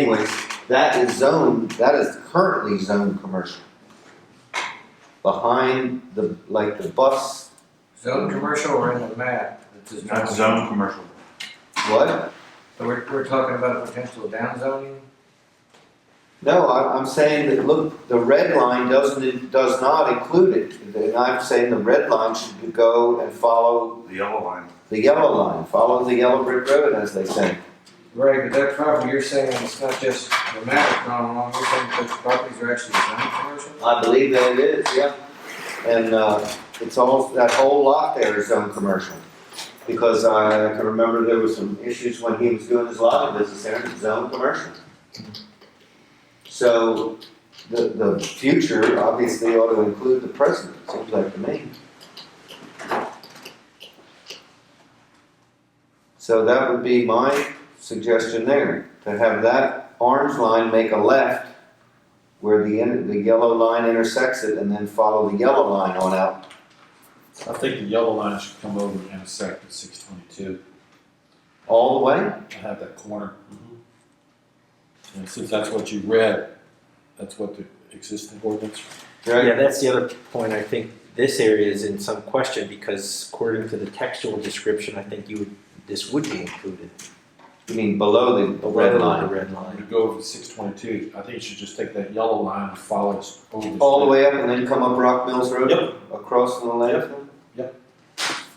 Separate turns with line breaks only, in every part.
anyways, that is zoned, that is currently zoned commercial. Behind the, like the bus,
Zone commercial or in the map? This is
Not zone commercial.
what?
So we're, we're talking about a potential downzoning?
No, I'm, I'm saying that, look, the red line doesn't, it does not include it. And I'm saying the red line should go and follow
The yellow line.
the yellow line, follow the yellow brick road, as they say.
Right, but that property, you're saying it's not just the map is not along, you're saying those properties are actually zone commercial?
I believe that it is, yeah. And, uh, it's all, that whole lot there is zone commercial. Because I can remember there was some issues when he was doing his lobby business there, it's zone commercial. So, the, the future obviously ought to include the present, it seems like to me. So that would be my suggestion there, to have that orange line make a left where the, in- the yellow line intersects it and then follow the yellow line on out.
I think the yellow line should come over and intersect at six twenty-two.
All the way?
I have that corner.
Mm-hmm.
And since that's what you read, that's what the existing ordinance.
Right?
Yeah, that's the other point, I think this area is in some question, because according to the textual description, I think you would, this would be included.
You mean below the red
The
line?
red
I'm
line.
gonna go over six twenty-two. I think you should just take that yellow line and follow it over. this
All the
way.
way up and then come up Rock Mills Road?
Yep.
Across from the landfill?
Yep.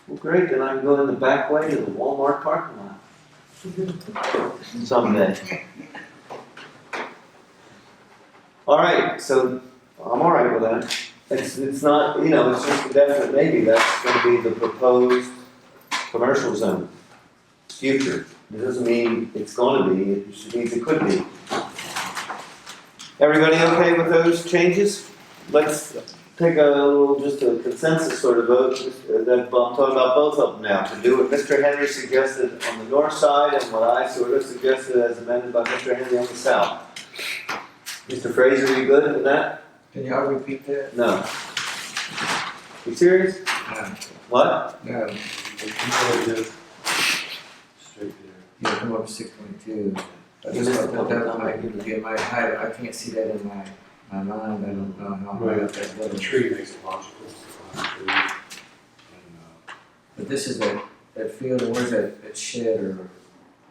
Well, great, then I can go in the back way to the Walmart parking lot. Someday. All right, so I'm all right with that. It's, it's not, you know, it's just a definite maybe, that's gonna be the proposed commercial zone. Future, it doesn't mean it's gonna be, it should mean it could be. Everybody okay with those changes? Let's take a little, just a consensus sort of vote, uh, that I'm talking about both of them now, to do what Mr. Henry suggested on the north side and what I sort of suggested as amended by Mr. Henry on the south. Mr. Fraser, you good with that?
Can y'all repeat that?
No. You serious? What?
No,
Straight there.
you come up six point two. I just thought that that might be would be my height, I can't see that in my, my mind, I don't know how high up that
The
was.
tree makes it logical. it's a lot of trees. And,
But this is that, that field, or where's that, that shed or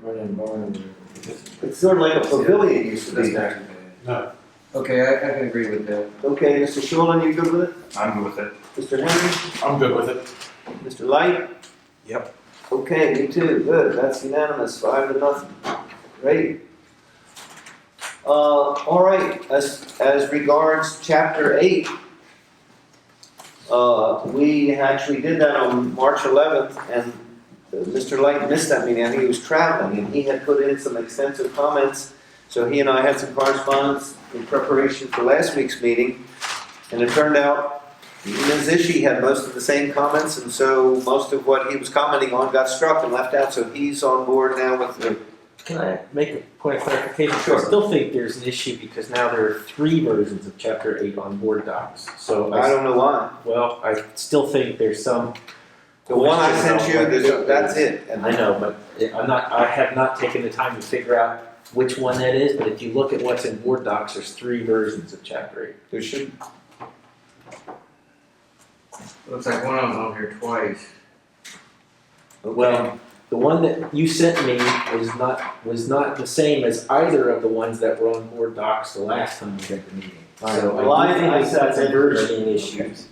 running barn or whatever?
It's sort of like a pavilion used to
That's
be there.
not too bad.
uh, No,
Okay, I, I can agree with that.
Okay, Mr. Shulman, you good with it?
I'm with it.
Mr. Henry?
I'm good with it.
Mr. Light? Yep. Okay, you too, good, that's unanimous, five to nothing. Great. Uh, all right, as, as regards chapter eight, uh, we actually did that on March eleventh, and Mr. Light missed that meeting, I think he was traveling, and he had put in some extensive comments. So he and I had some correspondence in preparation for last week's meeting, and it turned out Ms. Ishi had most of the same comments, and so most of what he was commenting on got struck and left out, so he's on board now with the.
Can I make a point of clarification?
Sure.
I still think there's an issue, because now there are three versions of chapter eight on board docs, so
I
I,
don't know why.
well, I still think there's some.
The one I
question
sent you,
about what-
there's- that's it. And
I know, but I'm not, I have not taken the time to figure out which one that is, but if you look at what's in board docs, there's three versions of chapter eight.
There should,
Looks like one of them's on here twice.
well,
Well, the one that you sent me was not, was not the same as either of the ones that were on board docs the last time we had the meeting. So
Well, I-
I do think
I
it's
said
got some
that-
versioning issues.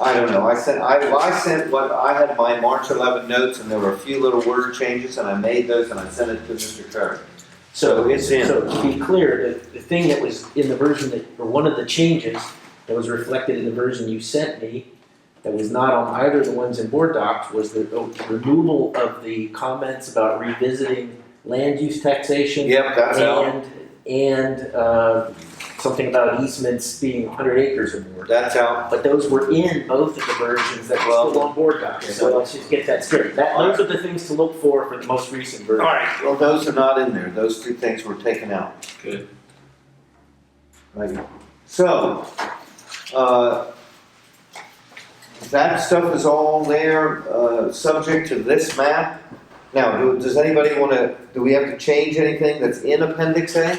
I don't know, I sent, I, well, I sent what, I had my March eleven notes and there were a few little word changes and I made those and I sent it to Mr. Curry. So it's in.
So to be clear, the, the thing that was in the version that, or one of the changes that was reflected in the version you sent me, that was not on either of the ones in board docs, was the the removal of the comments about revisiting land use taxation.
Yep, that's out,
And, and, uh, something about easements being hundred acres or more.
that's out.
But those were in both of the versions that were still on board docs, so let's just get that straight. That, those are the things to look for for the most recent version.
Alright. Well, those are not in there, those two things were taken out.
Good.
Right. So, uh, that stuff is all there, uh, subject to this map. Now, do- does anybody wanna, do we have to change anything that's in appendix A?